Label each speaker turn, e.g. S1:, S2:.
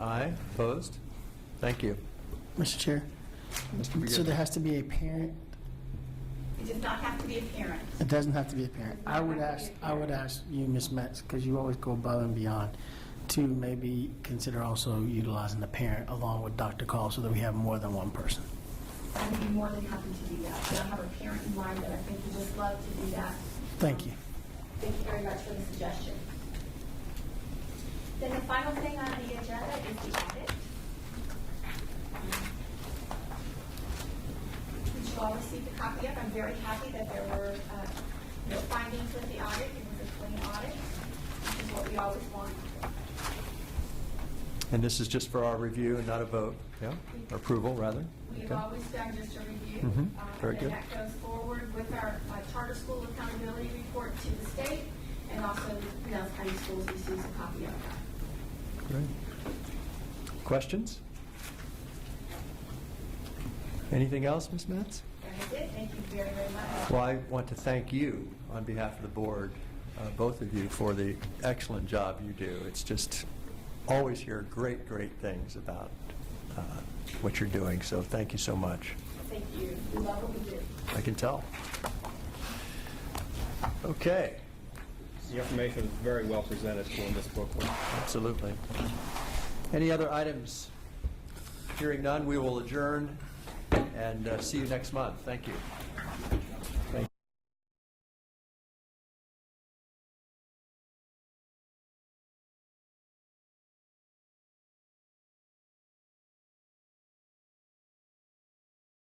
S1: Aye. Opposed? Thank you.
S2: Mr. Chair.
S1: Mr.
S2: So there
S1: Begay.
S2: has to be a parent?
S3: It does not have to be a parent.
S2: It doesn't have to be a parent. I would ask, I would ask you, Ms. Metz, because you always go above and beyond, to maybe consider also utilizing the parent along with Dr. Call so that we have more than one person.
S3: I would be more than happy to do that. But I have a parent in mind that I think would just love to do that.
S2: Thank you.
S3: Thank you very much for the suggestion. Then the final thing on the agenda is the audit. Which you all received a copy of. I'm very happy that there were uh, no findings with the audit. It was a clean audit, which is what we always want.
S1: And this is just for our review and not a vote, yeah? Or Approval, rather?
S3: We've
S1: Okay.
S3: always done just a review.
S1: Mhm.
S3: uh, and
S1: Very
S3: then
S1: good.
S3: that goes forward with our uh, charter school accountability report to the state, and also Pinellas County Schools receives a copy of that.
S1: Great. Questions? Anything else, Ms. Metz?
S3: That is it. Thank you very, very much.
S1: Well, I want to thank you on behalf of the board, uh, both of you, for the excellent job you do. It's just, always hear great, great things about uh, what you're doing, so thank you so much.
S3: Thank you. We love what we do.
S1: I can tell. Okay,
S4: The information was very well presented too in this booklet.
S1: absolutely. Any other items? Hearing none, we will adjourn and uh, see you next month. Thank you.